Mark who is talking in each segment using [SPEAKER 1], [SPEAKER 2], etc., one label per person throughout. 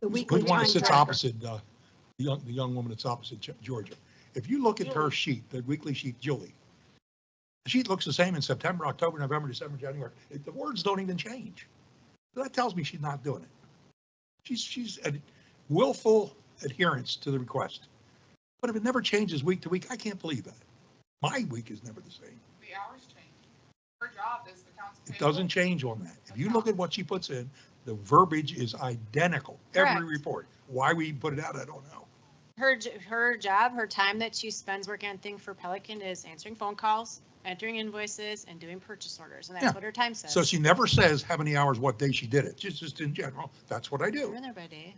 [SPEAKER 1] the weekly
[SPEAKER 2] Put one that
[SPEAKER 1] time
[SPEAKER 2] sits
[SPEAKER 1] tracker.
[SPEAKER 2] opposite, uh, the young, the young woman that's opposite Ge- Georgia. If you look at her sheet, the weekly sheet, Julie, the sheet looks the same in September, October, November, December, January. It- The words don't even change. So That tells me she's not doing it. She's, she's a willful adherence to the request. But if it never changes week to week, I can't believe that. My week is never the same.
[SPEAKER 3] The hours change. Her job is the council.
[SPEAKER 2] It doesn't change on that. If you look at what she puts in, the verbiage is identical, every
[SPEAKER 4] Correct.
[SPEAKER 2] report. Why we put it out, I don't know.
[SPEAKER 4] Her, j- her job, her time that she spends working on thing for Pelican is answering phone calls, entering invoices and doing purchase orders. And
[SPEAKER 2] Yeah.
[SPEAKER 4] that's what her time says.
[SPEAKER 2] So she never says how many hours, what day she did it, just, just in general, that's what I do.
[SPEAKER 4] We're there by day.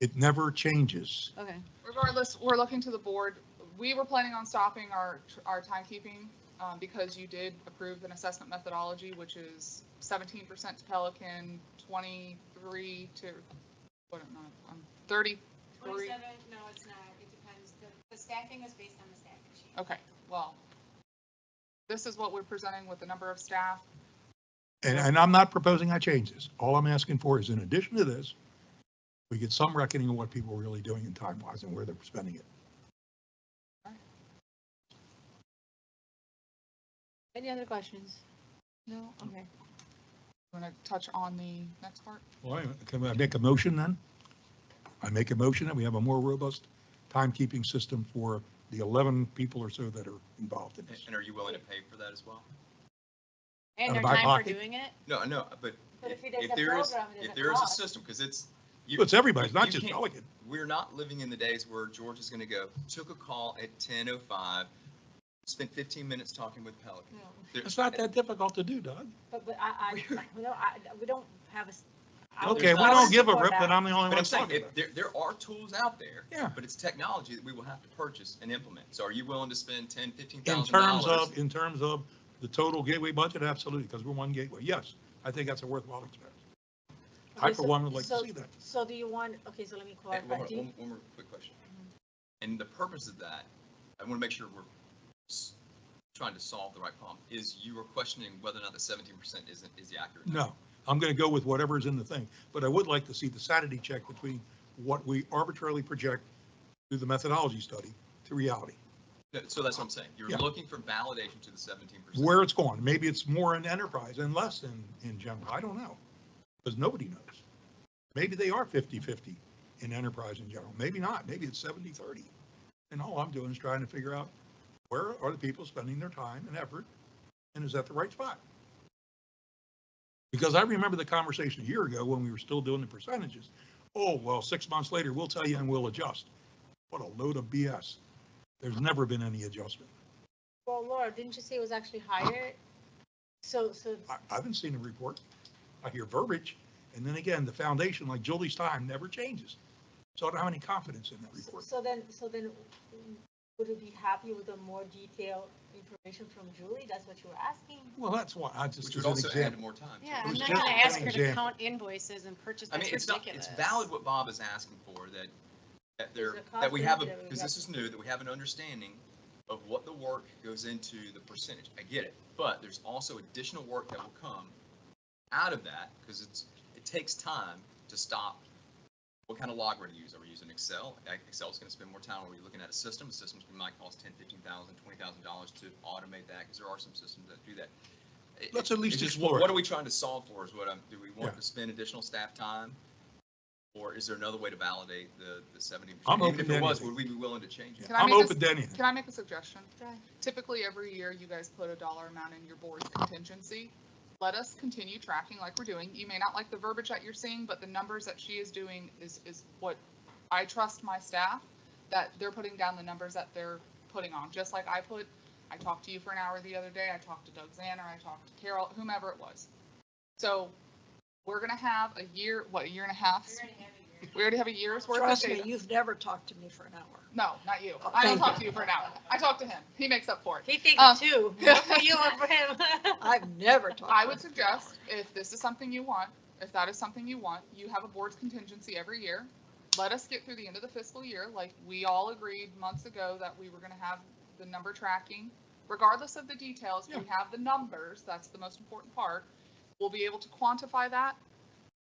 [SPEAKER 2] It never changes.
[SPEAKER 4] Okay.
[SPEAKER 3] Regardless, we're looking to the board. We were planning on stopping our, our timekeeping um, because you did approve an assessment methodology, which is seventeen percent to Pelican, twenty-three to, what, am I- um, I'm thirty-three.
[SPEAKER 5] Twenty-seven, no, it's not, it depends, the, the staffing was based on the staffing sheet.
[SPEAKER 3] Okay, well, this is what we're presenting with the number of staff.
[SPEAKER 2] And, and I'm not proposing I change this. All I'm asking for is in addition to this, we get some reckoning of what people are really doing in time wise and where they're spending it.
[SPEAKER 4] Any other questions? No? Okay.
[SPEAKER 3] I'm going to touch on the next part.
[SPEAKER 2] Well, I- can I make a motion then? I make a motion that we have a more robust timekeeping system for the 11 people or so that are involved in
[SPEAKER 6] And-
[SPEAKER 2] this.
[SPEAKER 6] And are you willing to pay for that as well?
[SPEAKER 4] And
[SPEAKER 2] Out
[SPEAKER 4] her
[SPEAKER 2] of my
[SPEAKER 4] time for
[SPEAKER 2] pocket.
[SPEAKER 4] doing it?
[SPEAKER 6] No, no, but
[SPEAKER 4] But
[SPEAKER 6] if
[SPEAKER 4] if he does
[SPEAKER 6] if
[SPEAKER 4] the
[SPEAKER 6] there is,
[SPEAKER 4] program, it
[SPEAKER 6] if
[SPEAKER 4] doesn't
[SPEAKER 6] there is a
[SPEAKER 4] cost.
[SPEAKER 6] system, because it's, you,
[SPEAKER 2] It's everybody, it's not
[SPEAKER 6] You
[SPEAKER 2] just
[SPEAKER 6] can't-
[SPEAKER 2] Pelican.
[SPEAKER 6] we're not living in the days where George is going to go, took a call at 10:05, spent 15 minutes talking with Pelican. There-
[SPEAKER 2] It's not that difficult to do, Doug.
[SPEAKER 7] But, but I, I, no, I, we don't have a. s- I would-
[SPEAKER 2] Okay, we
[SPEAKER 7] I would
[SPEAKER 2] don't give a
[SPEAKER 7] support
[SPEAKER 2] rip
[SPEAKER 7] that.
[SPEAKER 2] that I'm the only
[SPEAKER 6] But
[SPEAKER 2] one
[SPEAKER 6] I'm saying,
[SPEAKER 2] talking
[SPEAKER 6] if
[SPEAKER 2] about. it.
[SPEAKER 6] there, there are tools out there.
[SPEAKER 2] Yeah.
[SPEAKER 6] But it's technology that we will have to purchase and implement. So are you willing to spend 10, 15,000?
[SPEAKER 2] In terms of, in terms of the total gateway budget, absolutely, because we're one gateway. Yes, I think that's a worthwhile expense. I
[SPEAKER 7] Okay,
[SPEAKER 2] for
[SPEAKER 7] so-
[SPEAKER 2] one would like to
[SPEAKER 7] so-
[SPEAKER 2] see that.
[SPEAKER 7] So do you want, okay, so let me
[SPEAKER 6] Hey, One
[SPEAKER 7] clarify.
[SPEAKER 6] more,
[SPEAKER 7] Do you-
[SPEAKER 6] one- one more quick question. And the purpose of that, I want to make sure we're s- trying to solve the right problem, is you are questioning whether or not the seventeen percent isn't, is the accurate. number.
[SPEAKER 2] No, I'm going to go with whatever's in the thing, but I would like to see the sanity check between what we arbitrarily project through the methodology study to reality,
[SPEAKER 6] No, So that's what I'm saying. You're
[SPEAKER 2] Yeah.
[SPEAKER 6] looking for validation to the seventeen percent.
[SPEAKER 2] where it's going. Maybe it's more in enterprise and less in, in general. I don't know, because nobody knows. Maybe they are 50-50 in enterprise in general. Maybe not. Maybe it's 70-30. And all I'm doing is trying to figure out where are the people spending their time and effort? And is that the right spot? Because I remember the conversation a year ago when we were still doing the percentages. Oh, well, six months later, we'll tell you and we'll adjust. What a load of BS. There's never been any adjustment.
[SPEAKER 7] Well, Laura, didn't you say it was actually higher? So, so,
[SPEAKER 2] I, I haven't seen a report. I hear verbiage. And then again, the foundation, like Julie's time, never changes. So I don't have any confidence in that report.
[SPEAKER 7] so then, so then would you be happy with a more detailed information from Julie? That's what you were asking?
[SPEAKER 2] Well, that's why I just,
[SPEAKER 6] Which
[SPEAKER 2] as
[SPEAKER 6] would
[SPEAKER 2] an
[SPEAKER 6] also add
[SPEAKER 2] example.
[SPEAKER 6] more time. to it.
[SPEAKER 4] Yeah,
[SPEAKER 2] was
[SPEAKER 4] I'm not
[SPEAKER 2] just
[SPEAKER 4] gonna
[SPEAKER 2] an
[SPEAKER 4] ask her to
[SPEAKER 2] example.
[SPEAKER 4] count invoices and purchase,
[SPEAKER 6] I mean,
[SPEAKER 4] that's
[SPEAKER 6] it's not,
[SPEAKER 4] ridiculous.
[SPEAKER 6] it's valid what Bob is asking for, that, that there,
[SPEAKER 7] There's a cost
[SPEAKER 6] that we have, a
[SPEAKER 7] benefit that we
[SPEAKER 6] because
[SPEAKER 7] got.
[SPEAKER 6] this is new, that we have an understanding of what the work goes into the percentage. I get it, but there's also additional work that will come out of that, because it's, it takes time to stop. What kind of log we're to use? Are we using Excel? Like, Excel's gonna spend more time, are we looking at a system? A system's gonna might cost ten, fifteen thousand, twenty thousand dollars to automate that, because there are some systems that do that. It-
[SPEAKER 2] Let's at least
[SPEAKER 6] it's just,
[SPEAKER 2] explore it.
[SPEAKER 6] What are we trying to solve for is what I'm, do we want
[SPEAKER 2] Yeah.
[SPEAKER 6] to spend additional staff time? Or is there another way to validate the, the seventy
[SPEAKER 2] I'm
[SPEAKER 6] percent? Even
[SPEAKER 2] open
[SPEAKER 6] if
[SPEAKER 2] to
[SPEAKER 6] it was,
[SPEAKER 2] anything.
[SPEAKER 6] would we be willing to change it?
[SPEAKER 3] Can I
[SPEAKER 2] I'm
[SPEAKER 3] make this-
[SPEAKER 2] open to anything.
[SPEAKER 3] Can I make a suggestion?
[SPEAKER 7] Go ahead.
[SPEAKER 3] Typically, every year, you guys put a dollar amount in your board's contingency. Let us continue tracking like we're doing. You may not like the verbiage that you're seeing, but the numbers that she is doing is, is what I trust my staff, that they're putting down the numbers that they're putting on, just like I put, I talked to you for an hour the other day, I talked to Doug Zanner, I talked to Carol, whomever it was. So we're gonna have a year, what, a year and a half?
[SPEAKER 5] We're gonna have a year.
[SPEAKER 3] We already have a year's worth of
[SPEAKER 1] Trust me,
[SPEAKER 3] data.
[SPEAKER 1] you've never talked to me for an hour.
[SPEAKER 3] No, not you.
[SPEAKER 1] Oh,
[SPEAKER 3] I don't
[SPEAKER 1] thank
[SPEAKER 3] talk to you for an hour. I talk to him. He makes up for it.
[SPEAKER 7] He thinks
[SPEAKER 3] Um,
[SPEAKER 7] too. Look for Oh. You or for him.
[SPEAKER 1] I've never talked.
[SPEAKER 3] I
[SPEAKER 1] to
[SPEAKER 3] would
[SPEAKER 1] you.
[SPEAKER 3] suggest, if this is something you want, if that is something you want, you have a board's contingency every year. Let us get through the end of the fiscal year, like we all agreed months ago that we were gonna have the number tracking. Regardless of the details, we have the numbers, that's the most important part. We'll be able to quantify that,